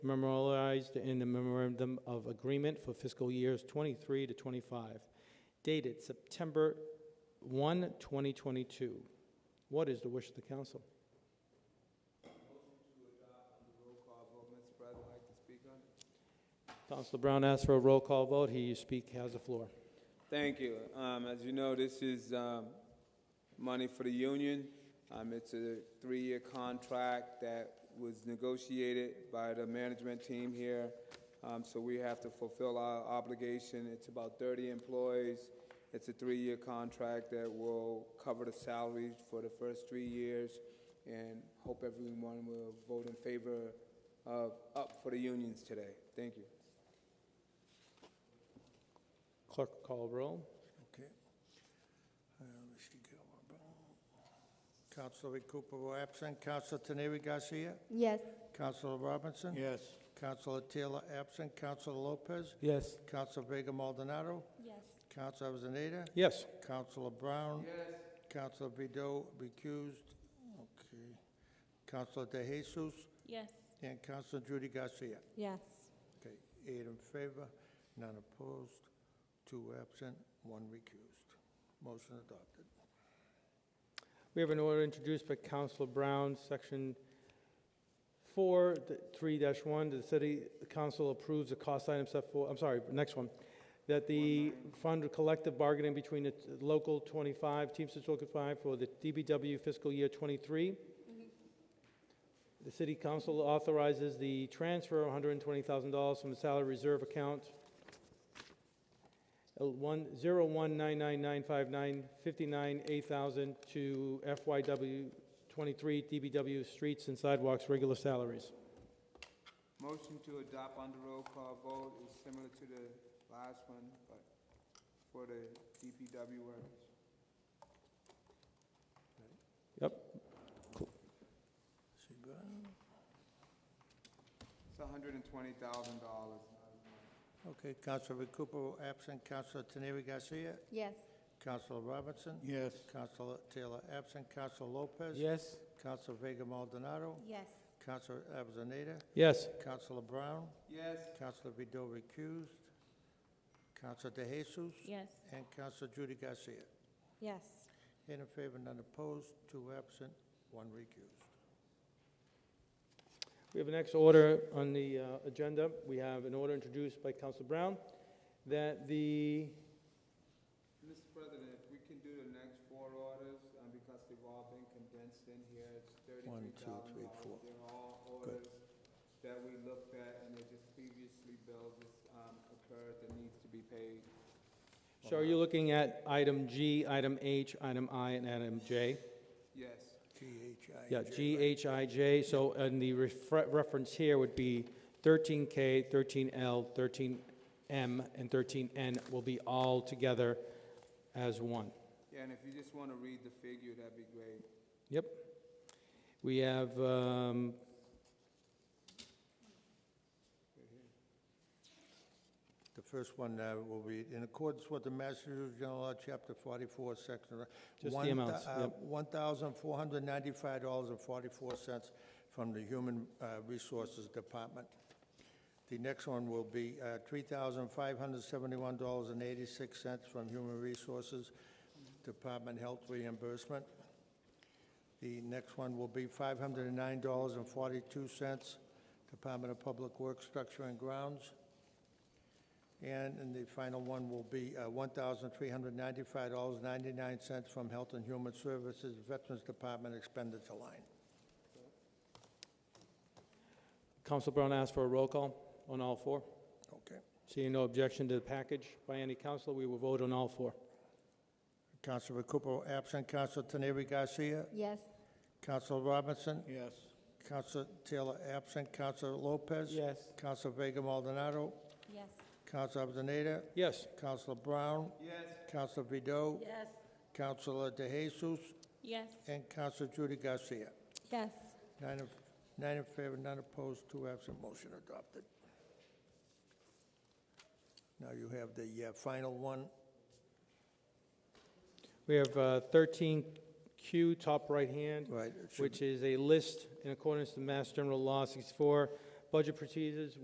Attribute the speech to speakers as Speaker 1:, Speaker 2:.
Speaker 1: memorialized in the memorandum of agreement for fiscal years 23 to 25, dated September 1, 2022. What is the wish of the council?
Speaker 2: Mr. President, I'd like to speak on it.
Speaker 1: Councilor Brown asks for a roll call vote. He you speak has the floor.
Speaker 2: Thank you. Um, as you know, this is, um, money for the union. Um, it's a three-year contract that was negotiated by the management team here. Um, so we have to fulfill our obligation. It's about thirty employees. It's a three-year contract that will cover the salaries for the first three years. And hope everyone will vote in favor of, up for the unions today. Thank you.
Speaker 1: Clerk call roll.
Speaker 3: Okay. Uh, Mr. Gilmore. Councilor Recupero absent. Councilor Teneri Garcia.
Speaker 4: Yes.
Speaker 3: Councilor Robinson.
Speaker 5: Yes.
Speaker 3: Councilor Taylor absent. Councilor Lopez.
Speaker 1: Yes.
Speaker 3: Councilor Vega Maldonado.
Speaker 4: Yes.
Speaker 3: Councilor Avellaneda.
Speaker 1: Yes.
Speaker 3: Councilor Brown. Yes. Councilor Vido recused. Okay. Councilor De Jesus
Speaker 4: Yes.
Speaker 3: and Councilor Judy Garcia.
Speaker 4: Yes.
Speaker 3: Okay, eight in favor, none opposed, two absent, one recused. Motion adopted.
Speaker 1: We have an order introduced by Councilor Brown, Section 4, th- 3-1, the city council approves the cost item set for, I'm sorry, next one, that the fund collective bargaining between the t- local 25, Teamsters Local 5 for the DBW fiscal year 23. The city council authorizes the transfer of $120,000 from the salary reserve account one zero one nine nine nine five nine fifty-nine eight thousand to FYW twenty-three DBW Streets and Sidewalks regular salaries.
Speaker 2: Motion to adopt on the roll call vote is similar to the last one, but for the DPW workers. It's hundred and twenty thousand dollars.
Speaker 3: Okay, Councilor Recupero absent, Councilor Teneri Garcia,
Speaker 4: Yes.
Speaker 3: Councilor Robinson,
Speaker 5: Yes.
Speaker 3: Councilor Taylor absent, Councilor Lopez.
Speaker 1: Yes.
Speaker 3: Councilor Vega Maldonado,
Speaker 4: Yes.
Speaker 3: Councilor Avellaneda,
Speaker 1: Yes.
Speaker 3: Councilor Brown,
Speaker 2: Yes,
Speaker 3: Councilor Vido recused, Councilor De Jesus,
Speaker 4: Yes.
Speaker 3: and Councilor Judy Garcia.
Speaker 4: Yes.
Speaker 3: Eight in favor, none opposed, two absent, one recused.
Speaker 1: We have an next order on the uh, agenda. We have an order introduced by Council Brown that the,
Speaker 2: Mr. President, if we can do the next four orders, um, because they've all been condensed in here, it's
Speaker 3: One,
Speaker 2: thirty-three
Speaker 3: two,
Speaker 2: thousand
Speaker 3: three, four.
Speaker 2: dollars. They're all orders that we looked at and they're just previously bills that, um, occurred that needs to be paid.
Speaker 1: so are you looking at item G, item H, item I, and item J?
Speaker 2: Yes,
Speaker 3: G-H-I-J.
Speaker 1: Yeah, G, H, I, J, so, and the refre- reference here would be 13K, 13L, 13M, and 13N will be all together as one.
Speaker 2: yeah, and if you just wanna read the figure, that'd be great.
Speaker 1: Yep. We have, um,
Speaker 3: The first one uh, will be, in accordance with the Massachusetts General Law, Chapter 44, Section...
Speaker 1: Just the
Speaker 3: one thou-
Speaker 1: amounts,
Speaker 3: uh,
Speaker 1: yep.
Speaker 3: $1,495.44 from the Human uh, Resources Department. The next one will be uh, $3,571.86 from Human Resources Department Health Reimbursement. The next one will be $509.42, Department of Public Works Structure and Grounds. And, and the final one will be uh, $1,395.99 from Health and Human Services Veterans Department expenditure line.
Speaker 1: Council Brown asked for a roll call on all four.
Speaker 3: Okay.
Speaker 1: Seeing no objection to the package by any council, we will vote on all four.
Speaker 3: Councilor Recupero absent, Councilor Teneri Garcia,
Speaker 4: Yes.
Speaker 3: Councilor Robinson,
Speaker 5: Yes.
Speaker 3: Councilor Taylor absent, Councilor Lopez.
Speaker 1: Yes.
Speaker 3: Councilor Vega Maldonado,
Speaker 4: Yes.
Speaker 3: Councilor Avellaneda,
Speaker 1: Yes.
Speaker 3: Councilor Brown,
Speaker 2: Yes.
Speaker 3: Councilor Vido,
Speaker 4: Yes.
Speaker 3: Councilor De Jesus,
Speaker 4: Yes.
Speaker 3: and Councilor Judy Garcia.
Speaker 4: Yes.
Speaker 3: Nine in, nine in favor, none opposed, two absent, motion adopted. Now you have the uh, final one,
Speaker 1: We have uh, 13Q, top right hand.
Speaker 3: right? it should-
Speaker 1: which is a list in accordance to Mass General Law 64, budget procedures